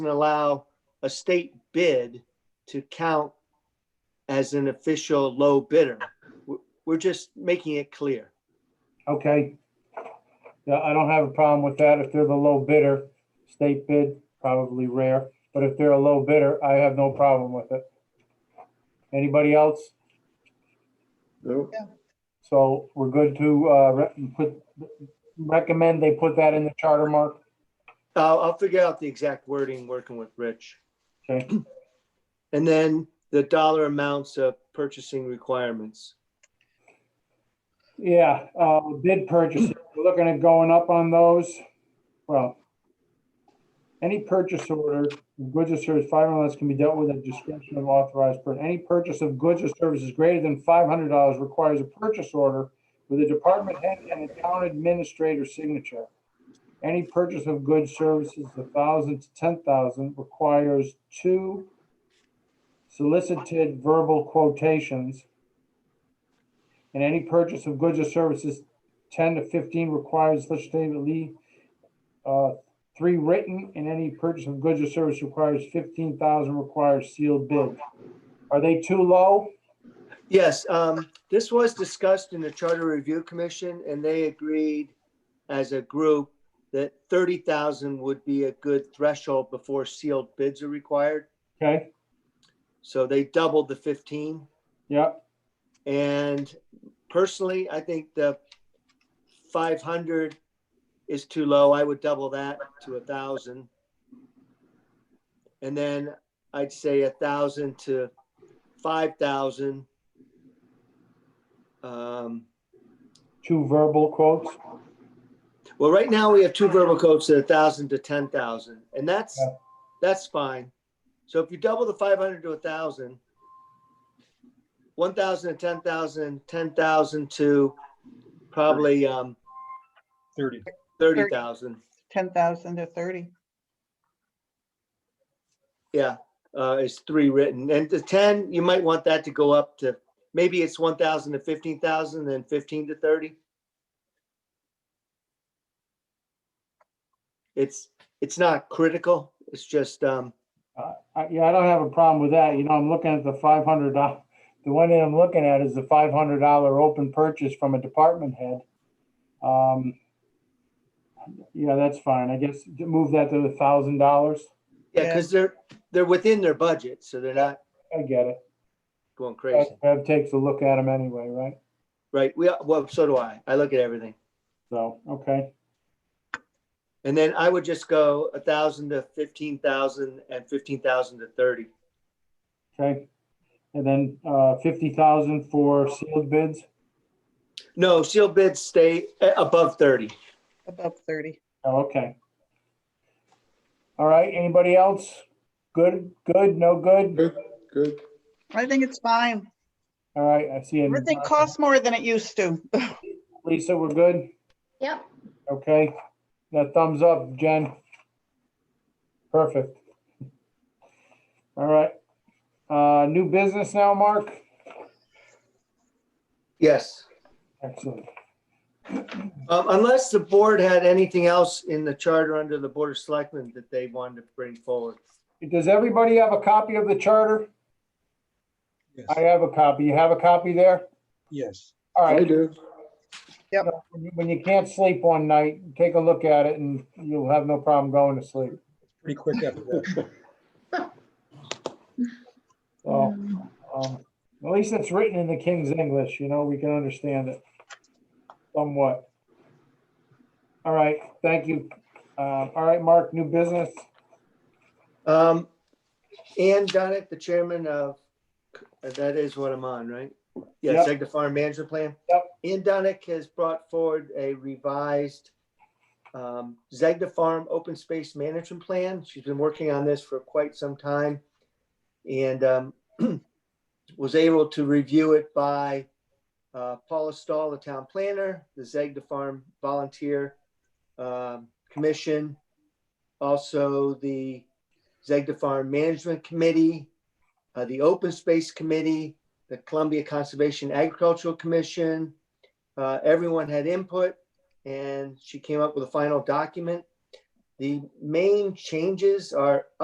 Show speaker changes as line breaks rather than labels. and allow a state bid to count as an official low bidder. We're- We're just making it clear.
Okay. Yeah, I don't have a problem with that. If they're the low bidder, state bid, probably rare, but if they're a low bidder, I have no problem with it. Anybody else?
No,
So we're good to, uh, re- put, recommend they put that in the charter mark?
I'll, I'll figure out the exact wording, working with Rich.
Okay,
And then the dollar amounts of purchasing requirements.
yeah, uh, bid purchases, we're looking at going up on those. Well, any purchase order, of goods or services, five hundred dollars can be dealt with at discretion of authorized person. Any purchase of goods or services greater than five hundred dollars requires a purchase order with a department head and a town administrator signature. Any purchase of goods, services, a thousand to ten thousand requires two solicited verbal quotations. And any purchase of goods or services ten to fifteen requires legislatively uh, three written, and any purchase of goods or service requires fifteen thousand requires sealed bid. Are they too low?
Yes, um, this was discussed in the Charter Review Commission and they agreed as a group that thirty thousand would be a good threshold before sealed bids are required.
Okay,
So they doubled the fifteen.
yeah,
And personally, I think the five hundred is too low. I would double that to a thousand. And then I'd say a thousand to five thousand. Um,
two verbal quotes.
well, right now we have two verbal quotes at a thousand to ten thousand, and that's,
Yeah.
that's fine. So if you double the five hundred to a thousand, one thousand to ten thousand, ten thousand to probably, um,
thirty.
thirty thousand,
10,000 to 30.
yeah, uh, is three written. And the ten, you might want that to go up to, maybe it's one thousand to fifteen thousand, then fifteen to thirty. It's, it's not critical, it's just, um,
Uh, I- Yeah, I don't have a problem with that. You know, I'm looking at the five hundred dollar, the one that I'm looking at is the five hundred dollar open purchase from a department head. Um, Yeah, that's fine. I guess move that to a thousand dollars.
Yeah,
Yeah.
because they're, they're within their budget, so they're not
I get it.
going
Bev
crazy,
Bev takes a look at them anyway, right?
right? We, well, so do I. I look at everything.
So, okay,
And then I would just go a thousand to fifteen thousand and fifteen thousand to thirty.
okay. And then uh fifty thousand for sealed bids.
No, sealed bids stay uh, above thirty.
above 30.
Oh, okay. All right, anybody else? Good, good, no good?
good, good.
I think it's fine.
All right, I see. it.
Everything costs more than it used to.
Lisa, we're good?
Yep,
Okay, now thumbs up, Jen. Perfect. All right, uh, new business now, Mark?
Yes.
Excellent.
Um, unless the board had anything else in the charter under the Board of Selectmen that they wanted to bring forward.
Does everybody have a copy of the charter?
Yes.
I have a copy. You have a copy there?
Yes.
All
I
right,
do.
when you can't sleep one night, take a look at it and you'll have no problem going to sleep.
Pretty quick after that.
So, um, at least it's written in the King's English, you know, we can understand it somewhat. All right, thank you. Uh, all right, Mark, new business.
Um, Ann Donick, the chairman of, that is what I'm on, right? Yeah,
Yep.
Seg the Farm Management Plan.
Yep.
Ann Donick has brought forward a revised um, Zegda Farm Open Space Management Plan. She's been working on this for quite some time. And um, was able to review it by uh, Paula Stahl, the town planner, the Zegda Farm Volunteer um, Commission, also the Zegda Farm Management Committee, uh, the Open Space Committee, the Columbia Conservation Agricultural Commission. Uh, Everyone had input and she came up with a final document. The main changes are